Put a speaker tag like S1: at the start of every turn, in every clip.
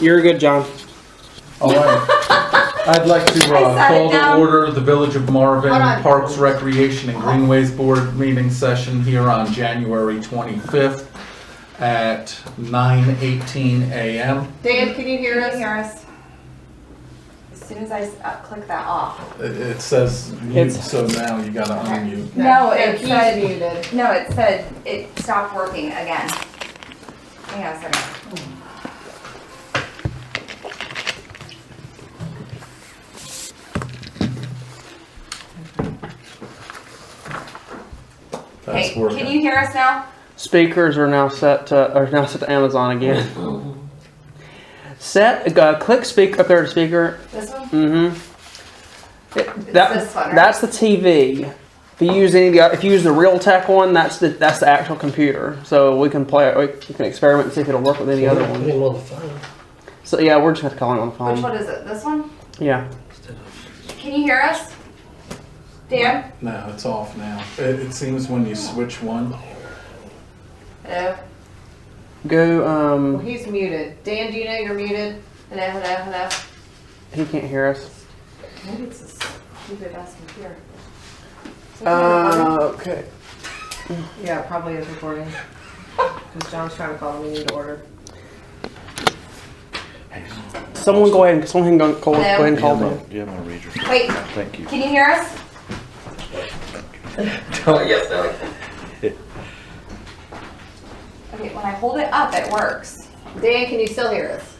S1: You're good, John.
S2: All right. I'd like to uh,
S3: I
S2: call
S3: sat it
S2: to
S3: down.
S2: order the Village of Marvin
S3: Hold on.
S2: Parks Recreation and Greenways Board meeting session here on January 25th at 9:18 a.m.
S3: Dan, can you
S4: Mm-hmm.
S3: hear
S4: Can you
S3: us?
S4: hear us? As soon as I s- uh, click that off.
S2: It- It says mute,
S1: It's-
S2: so now you gotta unmute.
S4: No, it
S3: he's
S4: said-
S3: muted.
S4: No, it said it stopped working again. Hang on a second.
S2: That's
S4: Hey, can you
S2: working.
S4: hear us now?
S1: Speakers are now set to are now set to Amazon again. Set uh, click speak up there to speaker.
S4: This one?
S1: Mm-hmm. It,
S4: this one,
S1: that
S4: right?
S1: that's the TV. If you use any of the if you use the Realtek one, that's the that's the actual computer. So we can play we can experiment and see if it'll work with any other
S5: Put
S1: one.
S5: him on the phone.
S1: So yeah, we're just gonna call him on the phone.
S2: Um,
S4: Which one is it? This one?
S1: Yeah.
S4: Can you hear us? Dan?
S2: No, it's off now. It it seems when you switch one,
S4: Hello?
S1: Go.
S3: Well,
S1: Um.
S3: he's muted. Dan, do you know you're muted?
S4: Hello, hello, hello?
S1: He can't hear us.
S4: Maybe it's this stupid ass computer.
S1: Uh. Okay.
S3: Yeah, it probably is recording. Because John's trying to call the meeting to order.
S1: Someone go ahead. and Someone go, go, go ahead and call him.
S6: Do you have my reader?
S4: Wait,
S6: Thank you.
S4: can you hear us? Oh, Okay, when I hold it up, it works.
S3: Dan, can you still hear us?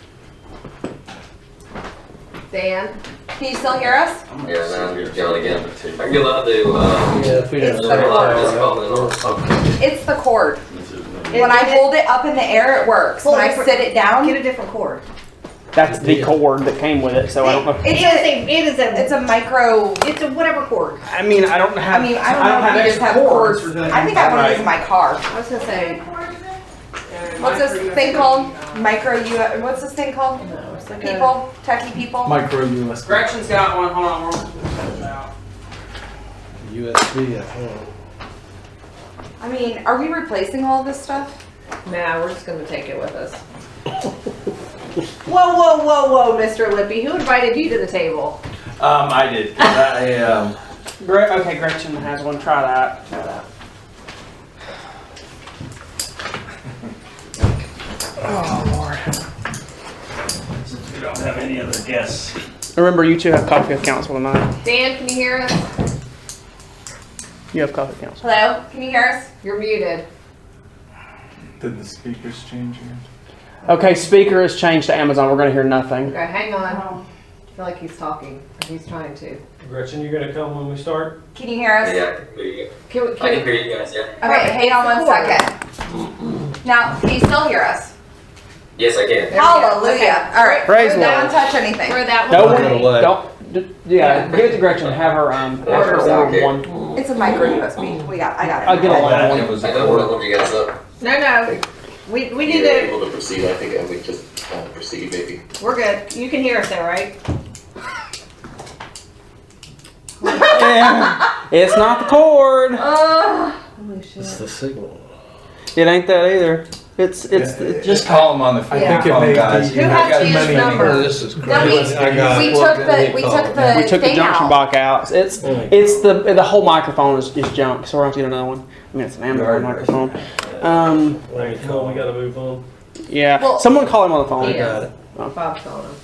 S3: Dan?
S4: Can you still hear us?
S7: Yeah, now I'm going again. Are you allowed to, uh,
S5: Yeah, if we
S4: It's
S5: don't.
S4: the
S5: know that,
S7: cord.
S5: uh,
S7: It's called
S4: It's the cord. When
S3: It-
S4: I
S3: it-
S4: hold it up in the air, it works. When
S3: Hold
S4: I
S3: it for-
S4: sit it down,
S3: Get
S4: it,
S3: a different cord.
S1: That's the cord that came with it. So I don't know.
S4: it's a,
S3: a, it is
S4: it's a micro.
S3: it's a whatever cord.
S1: I mean, I don't
S4: I
S1: have.
S4: mean, I don't know if you just have cords. I think I want to use in my car.
S3: I was gonna say.
S4: What's this thing called? Micro U. What's this thing called?
S3: No, it's like a.
S4: People, techie people.
S2: micro USB.
S1: Gretchen's got one. Hold on. we'll pull it out.
S5: USB at home.
S4: I mean, are we replacing all this stuff?
S3: Nah, we're just gonna take it with us. Whoa, whoa, whoa, whoa, Mr. Lippy, who invited you to the table?
S7: Um, I did. 'cause I, um,
S1: Gre- okay, Gretchen has one. Try that. Try that.
S8: Since we don't have any other guests.
S1: Remember, you two have coffee with council tonight.
S3: Dan, can you hear us?
S1: You have coffee with council.
S4: Hello, can you hear us?
S3: You're muted.
S2: Did the speakers change yet?
S1: Okay, speaker has changed to Amazon. We're gonna hear nothing.
S3: Okay, hang on.
S4: Oh.
S3: I feel like he's talking. He's trying to.
S5: Gretchen, you gonna come when we start?
S4: Can you hear us?
S7: yeah, I can hear you.
S3: Can we,
S7: I can
S3: can,
S7: hear you guys, yeah.
S4: Okay, hang on one second. Now, can you still hear us?
S7: Yes, I can.
S3: There we go.
S4: Hallelujah. All right.
S1: Praise the
S4: Don't
S1: Lord.
S4: touch anything.
S3: where that
S1: No
S3: one?
S1: one.
S3: was-
S1: Don't. d- Yeah, give it to Gretchen. Have her um. Have her
S7: Order,
S1: order
S7: okay.
S1: one.
S4: It's a micro USB. We got. I got it.
S1: I'll get a
S7: I
S1: long
S7: don't
S1: one.
S7: want to hold you guys up.
S3: No, no. We, we need
S7: You're
S3: to,
S7: able to proceed, I think I would just uh, proceed, maybe.
S3: we're good. You can hear us though, right?
S1: Yeah. It's not the cord.
S3: Holy shit.
S5: It's the signal.
S1: It ain't that either. It's it's
S2: Yeah.
S1: it just
S6: call him on the phone.
S2: I think it
S6: Call
S2: may
S6: him,
S2: be.
S6: guys.
S3: Who has to use number?
S5: This is
S4: No, we, we
S5: crazy. I got it.
S4: took the, we took the
S1: we took the
S4: thing
S1: junction
S4: out.
S1: block out. It's
S5: Mm.
S1: it's the the whole microphone is, is junk, so we're gonna have to get another one. I mean, it's an Amazon
S6: Right, right.
S1: microphone. Um,
S5: Wait, come on, we gotta move on.
S1: yeah.
S4: Well-
S1: Someone call him on the phone.
S5: I
S3: Yeah.
S5: got it.
S3: Bob's calling him.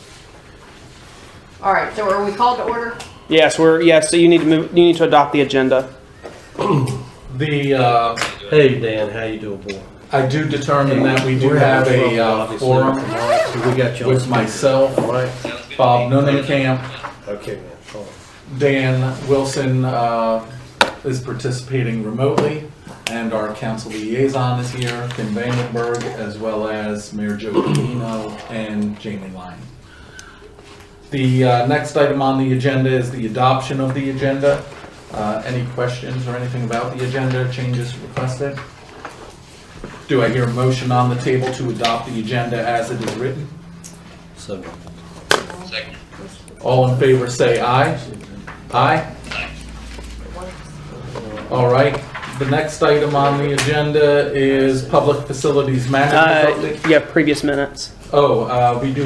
S3: All right, so are we called to order?
S1: Yes, we're yes. So you need to move. You need to adopt the agenda.
S2: The, uh,
S5: Hey, Dan, how you doing, boy?
S2: I do determine that we do
S5: We're
S2: have
S5: having
S2: a
S5: trouble,
S2: uh,
S5: obviously,
S2: forum
S5: tomorrow, so We got you on
S2: with myself,
S5: speaker, all right?
S2: Bob Nunnenkamp,
S5: Okay, man, hold on.
S2: Dan Wilson uh, is participating remotely, and our council liaison is here, Kim Vandenberg, as well as Mayor Joe Camino and Jamie Lyon. The uh, next item on the agenda is the adoption of the agenda. Uh, Any questions or anything about the agenda, changes requested? Do I hear a motion on the table to adopt the agenda as it is written?
S5: So,
S2: All in favor, say aye. Aye? All right, the next item on the agenda is Public Facilities
S1: Uh,
S2: Management Update.
S1: yeah, previous minutes.
S2: Oh, uh, we do